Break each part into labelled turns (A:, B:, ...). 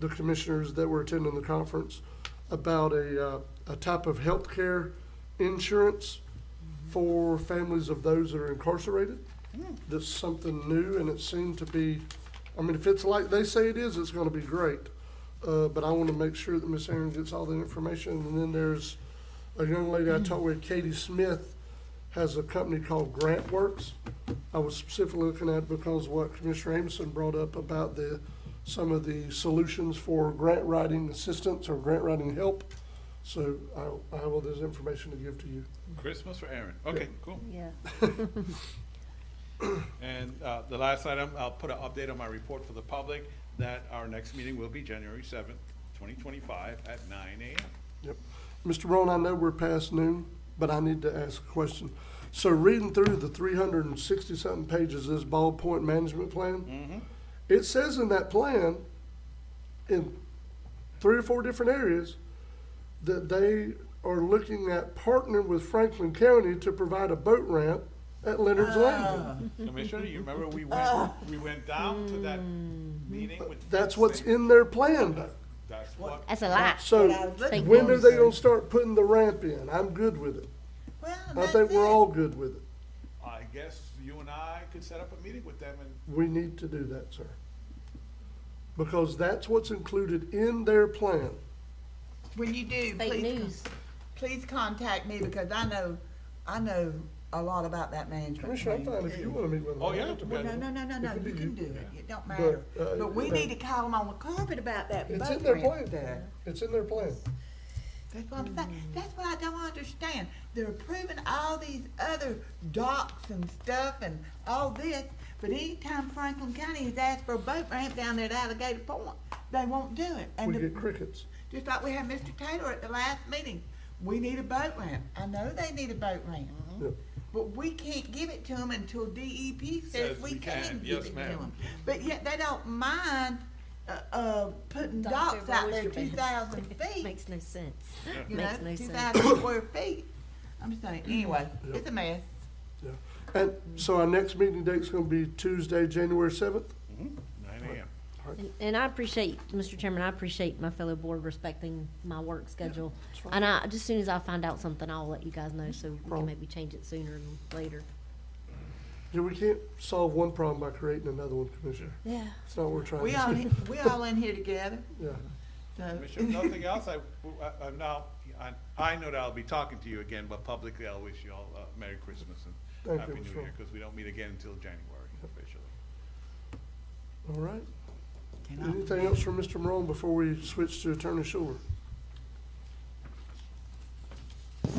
A: the commissioners that were attending the conference about a, uh, a type of healthcare insurance for families of those that are incarcerated. That's something new, and it seemed to be, I mean, if it's like they say it is, it's gonna be great. Uh, but I wanna make sure that Miss Aaron gets all the information, and then there's a young lady I talked with, Katie Smith, has a company called Grant Works. I was specifically looking at because what Commissioner Amison brought up about the, some of the solutions for grant writing assistance or grant writing help. So I, I will, there's information to give to you.
B: Christmas for Aaron. Okay, cool.
C: Yeah.
B: And uh, the last item, I'll put an update on my report for the public that our next meeting will be January seventh, twenty twenty-five at nine AM.
A: Yep. Mr. Brown, I know we're past noon, but I need to ask a question. So reading through the three hundred and sixty-something pages of this ballpoint management plan, it says in that plan, in three or four different areas, that they are looking at partnering with Franklin County to provide a boat ramp at Leonard's Landing.
B: Commissioner, you remember we went, we went down to that meeting with.
A: Ah. Mm. That's what's in their plan though.
B: That's what,
C: That's a lot.
A: So
C: Thank
A: when are
C: goodness.
A: they gonna start putting the ramp in? I'm good with it.
D: Well,
A: I
D: that's
A: think we're
D: it.
A: all good with it.
B: I guess you and I could set up a meeting with them and
A: We need to do that, sir. Because that's what's included in their plan.
D: When you do,
C: Fake
D: please, con-
C: news.
D: please contact me because I know, I know a lot about that management.
A: Commissioner, I'm
D: plan.
A: fine if you wanna meet with them.
B: Oh, yeah.
A: I'm not
D: Well, no,
A: available.
D: no, no, no, no, you can do it. It don't matter.
A: But, uh,
D: But we
A: but-
D: need to call them on the carpet about that
A: It's in
D: boat
A: their
D: ramp
A: plan.
D: there.
A: It's in their plan.
D: That's what I'm saying. That's what I don't understand. They're approving all these other docks and stuff and all this, but anytime Franklin County has asked for a boat ramp down there at Alligator Point, they won't do it. And
A: We
D: the-
A: get crickets.
D: Just like we had Mr. Taylor at the last meeting. We need a boat ramp. I know they need a boat ramp.
A: Yep.
D: But we can't give it to them until DEP says we can give
B: Yes,
D: it to
B: ma'am.
D: them. But yet they don't mind, uh, uh, putting docks out there two thousand feet,
C: Makes no sense.
D: you know,
C: Makes no
D: two
C: sense.
D: thousand square feet. I'm saying, anyway, it's a mess.
A: Yeah. And so our next meeting date's gonna be Tuesday, January seventh?
B: nine AM.
C: And- And I appreciate, Mr. Chairman, I appreciate my fellow board respecting my work schedule. And I, just as soon as I find out something, I'll let you guys know, so we
A: Problem.
C: can maybe change it sooner than later.
A: Yeah, we can't solve one problem by creating another one, Commissioner.
C: Yeah.
A: It's not what we're trying to
D: We all,
A: do.
D: in- we all in here together,
A: Yeah.
D: so.
B: Commissioner, if nothing else, I, I, I'm now, I, I know that I'll be talking to you again, but publicly I'll wish you all uh Merry Christmas and
A: Thank
B: Happy
A: you,
B: New
A: Mr.
B: Year, because we don't meet again until January officially.
A: All right.
D: Can I-
A: Anything else from Mr. Morone before we switch to Attorney Schuler?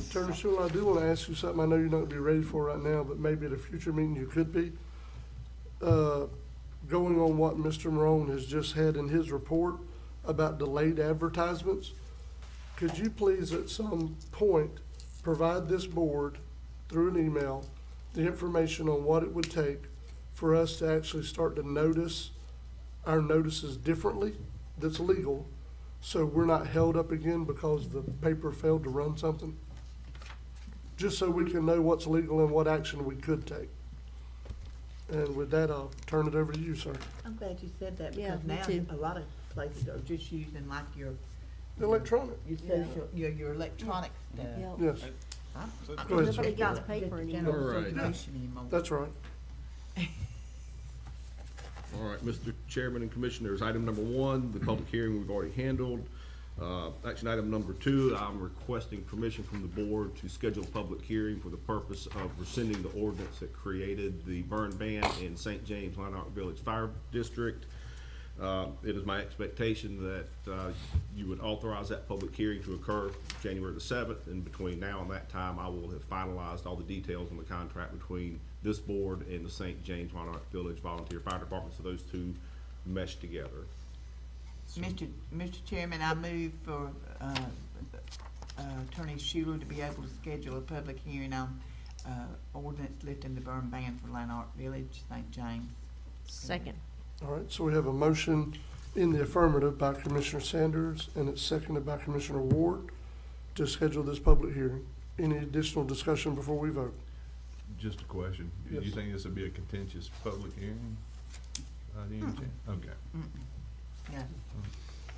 A: Attorney Schuler, I do want to ask you something I know you're not going to be ready for right now, but maybe at a future meeting you could be. Uh, Going on what Mr. Morone has just had in his report about delayed advertisements, could you please at some point provide this board through an email the information on what it would take for us to actually start to notice our notices differently that's legal, so we're not held up again because the paper failed to run something? Just so we can know what's legal and what action we could take. And with that, I'll turn it over to you, sir.
D: I'm glad you said that
C: Yeah,
D: because
C: me
D: now
C: too.
D: a lot of places are just using like your,
A: Electronic,
D: your social, your, your electronic stuff.
A: yes,
D: I'm-
B: So it's
D: I'm-
A: Go ahead, sir.
C: Nobody got the
D: Just
C: paper
D: the
C: anymore.
D: general
E: All right.
D: circulation anymore.
A: that's right.
E: All right, Mr. Chairman and Commissioners, item number one, the public hearing we've already handled. Uh, Action item number two, I'm requesting permission from the board to schedule a public hearing for the purpose of rescinding the ordinance that created the burn ban in St. James Lanark Village Fire District. Uh, It is my expectation that uh, you would authorize that public hearing to occur January the 7th, and between now and that time, I will have finalized all the details on the contract between this board and the St. James Monarch Village Volunteer Fire Department, so those two mesh together.
D: Mr. Mr. Chairman, I move for, uh, uh, Attorney Schuler to be able to schedule a public hearing on, uh, ordinance lifting the burn ban for Lanark Village, St. James.
C: Second.
A: All right, so we have a motion in the affirmative by Commissioner Sanders, and it's seconded by Commissioner Ward to schedule this public hearing. Any additional discussion before we vote?
F: Just a question. Do you
A: Yes.
F: think this would be a contentious public hearing? by any chance? Okay.
D: Yeah.